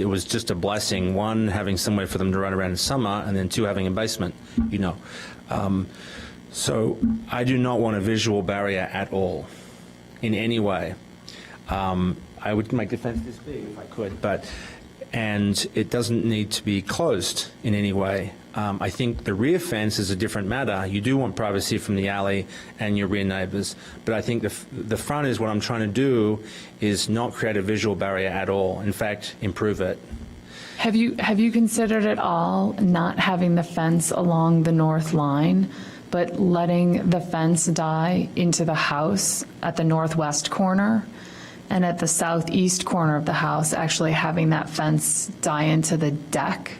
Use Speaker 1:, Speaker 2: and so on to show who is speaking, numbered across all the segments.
Speaker 1: It was just a blessing, one, having somewhere for them to run around in summer, and then two, having a basement, you know. Um, So I do not want a visual barrier at all, in any way. Um, I would make the fence this big if I could, but, and it doesn't need to be closed in any way. Um, I think the rear fence is a different matter. You do want privacy from the alley and your rear neighbors, but I think the, f- the front is what I'm trying to do, is not create a visual barrier at all. In fact, improve it.
Speaker 2: Have you, have you considered at all not having the fence along the north line, but letting the fence die into the house at the northwest corner? And at the southeast corner of the house, actually having that fence die into the deck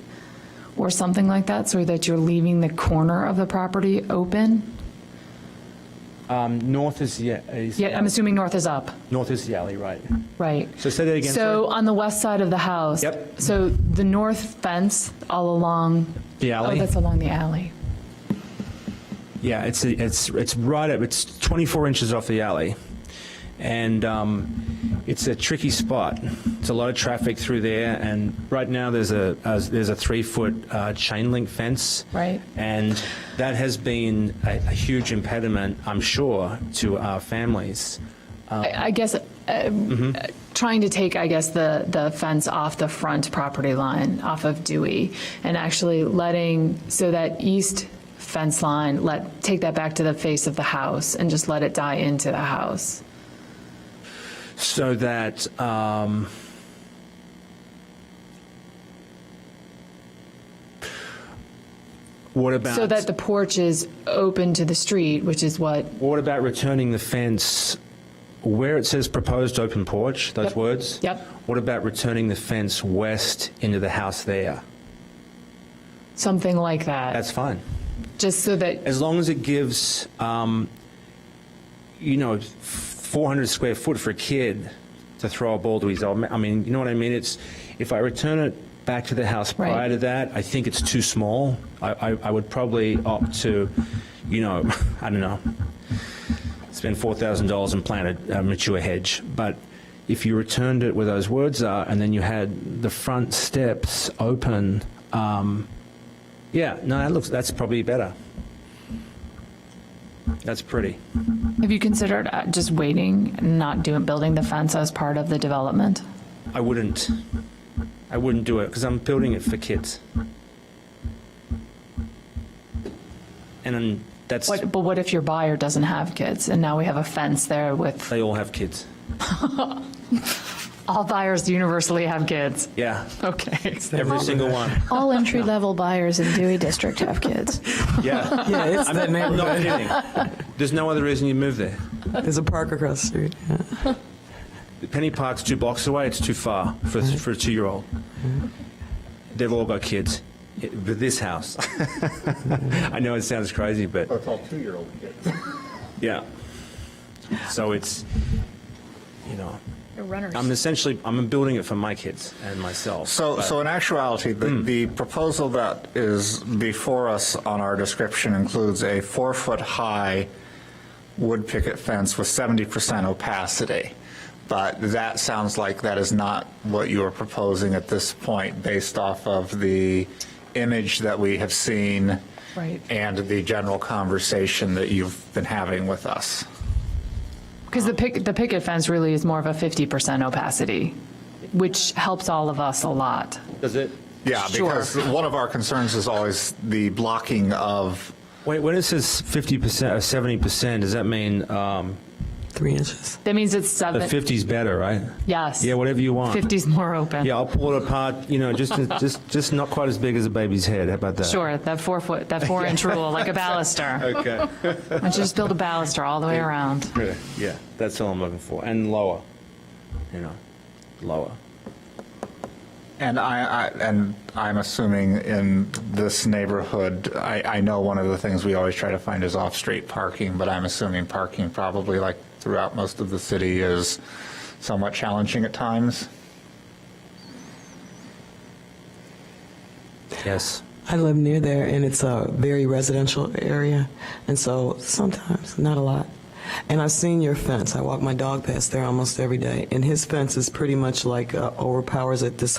Speaker 2: or something like that, so that you're leaving the corner of the property open?
Speaker 1: North is the, is.
Speaker 2: Yeah, I'm assuming north is up,
Speaker 1: North is the alley, right.
Speaker 2: right?
Speaker 1: So say that again,
Speaker 2: So on the west side of the house?
Speaker 1: Yep.
Speaker 2: So the north fence all along?
Speaker 1: The alley?
Speaker 2: Oh, that's along the alley.
Speaker 1: Yeah, it's, it's, it's right up, it's 24 inches off the alley. And um, it's a tricky spot. It's a lot of traffic through there, and right now, there's a, uh, there's a three-foot uh, chain link fence.
Speaker 2: Right.
Speaker 1: And that has been a a huge impediment, I'm sure, to our families.
Speaker 2: I I guess, uh, uh, trying to take, I guess, the, the fence off the front property line, off of Dewey, and actually letting, so that east fence line, let, take that back to the face of the house and just let it die into the house.
Speaker 1: So that, um, what about?
Speaker 2: So that the porch is open to the street, which is what,
Speaker 1: What about returning the fence where it says proposed open porch, those
Speaker 2: Yep.
Speaker 1: words?
Speaker 2: Yep.
Speaker 1: What about returning the fence west into the house there?
Speaker 2: something like that,
Speaker 1: That's fine.
Speaker 2: just so that,
Speaker 1: As long as it gives, um, you know, 400 square foot for a kid to throw a ball to his old man. I mean, you know what I mean? It's, if I return it back to the house
Speaker 2: Right.
Speaker 1: prior to that, I think it's too small. I, I, I would probably opt to, you know, I don't know, spend $4,000 and plant a, a mature hedge. But if you returned it where those words are and then you had the front steps open, um, yeah, no, that looks, that's probably better. That's pretty.
Speaker 2: have you considered uh, just waiting, and not doing, building the fence as part of the development?
Speaker 1: I wouldn't. I wouldn't do it because I'm building it for kids. And then that's
Speaker 2: What, but what if your buyer doesn't have kids, and now we have a fence there with
Speaker 1: they all have kids.
Speaker 2: All buyers universally have kids.
Speaker 1: Yeah,
Speaker 2: Okay.
Speaker 1: every single one.
Speaker 3: All entry level buyers in Dewey District have kids.
Speaker 1: Yeah,
Speaker 4: Yeah, it's that
Speaker 1: I'm not
Speaker 4: neighborhood.
Speaker 1: kidding. There's no other reason you move there.
Speaker 4: There's a park across the street. yeah.
Speaker 1: Penny Park's two blocks away. It's too far for for a two year old. They've all got kids. It- But this house, I know it sounds crazy, but
Speaker 5: That's all two-year-old kids.
Speaker 1: yeah. So it's, you know.
Speaker 3: They're runners.
Speaker 1: I'm essentially, I'm building it for my kids and myself.
Speaker 5: So,
Speaker 1: but-
Speaker 5: so in actuality, the, the proposal that is before us on our description includes a four-foot-high wood picket fence with 70% opacity. But that sounds like that is not what you are proposing at this point, based off of the image that we have seen
Speaker 2: Right.
Speaker 5: and the general conversation that you've been having with us.
Speaker 2: Because the pick, the picket fence really is more of a 50% opacity, which helps all of us a lot.
Speaker 1: Does it?
Speaker 5: Yeah,
Speaker 2: Sure.
Speaker 5: because one of our concerns is always the blocking of
Speaker 1: Wait, when it says 50% or 70%, does that mean um,
Speaker 4: Three inches.
Speaker 2: That means it's
Speaker 1: the
Speaker 2: seven,
Speaker 1: 50's better, right?
Speaker 2: yes.
Speaker 1: Yeah, whatever you want.
Speaker 2: 50's more open.
Speaker 1: Yeah, I'll pull it apart, you know, just, just, just not quite as big as a baby's head. How about that?
Speaker 2: Sure, that four foot, that four inch rule, like a baluster.
Speaker 1: Okay.
Speaker 2: Why don't you just build a baluster all the way around?
Speaker 1: Yeah, that's all I'm looking for. And lower, you know, lower.
Speaker 5: And I, I, and I'm assuming in this neighborhood, I, I know one of the things we always try to find is off-street parking, but I'm assuming parking probably like throughout most of the city is somewhat challenging at times.
Speaker 1: Yes.
Speaker 4: I live near there, and it's a very residential area, and so sometimes, not a lot. And I've seen your fence. I walk my dog past there almost every day, and his fence is pretty much like uh, overpowers it this